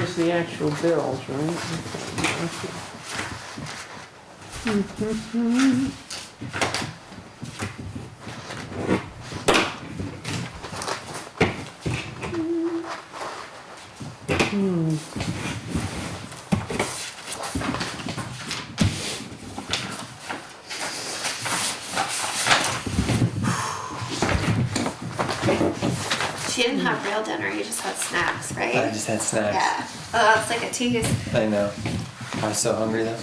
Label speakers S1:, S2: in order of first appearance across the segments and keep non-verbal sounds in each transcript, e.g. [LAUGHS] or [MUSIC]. S1: was the actual bills, right?
S2: She didn't have real dinner, you just had snacks, right?
S3: I just had snacks.
S2: Yeah. Oh, that's like a tease.
S3: I know. I was so hungry though.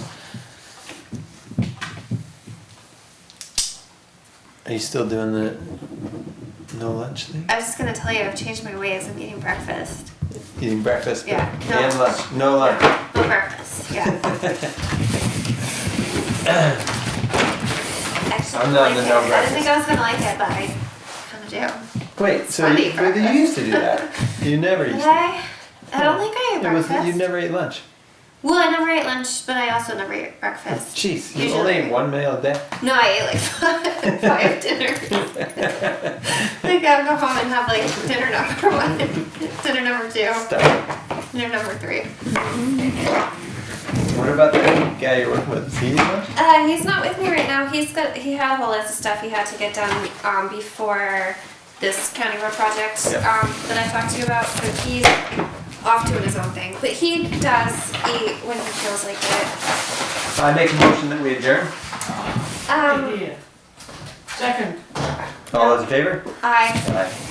S3: Are you still doing the no lunch thing?
S2: I was just gonna tell you, I've changed my ways. I'm eating breakfast.
S3: Eating breakfast but-
S2: Yeah, no.
S3: and lunch. No lunch.
S2: No breakfast,
S3: [LAUGHS]
S2: yeah. Actually,
S3: I'm not
S2: I
S3: the
S2: like
S3: no
S2: it. I didn't think I was gonna like it, but I kinda do.
S3: Wait, so
S2: Sunday
S3: you, but you used to do that. You never used
S2: Did
S3: to.
S2: I? I don't think I ate
S3: It was
S2: breakfast.
S3: you never ate lunch.
S2: Well, I never ate lunch, but I also never ate breakfast.
S3: Jeez, you
S2: Usually-
S3: only ate one meal
S2: [LAUGHS]
S3: a day. [LAUGHS]
S2: No, I ate like [LAUGHS] five, five dinners. like I'll go home and have like dinner number [LAUGHS] one, dinner number two,
S3: Stop.
S2: dinner number three.
S3: What about that guy you're working with? Is he eating lunch?
S2: Uh, he's not with me right now. He's got he had a whole list of stuff he had to get done um, before this county road project
S3: Yeah.
S2: um, that I talked to you about. So he's off doing his own thing, but he does eat when he feels like it.
S3: I make a motion that we adjourn.
S2: Um,
S1: Second.
S3: All those in favor?
S2: I.
S3: Aye.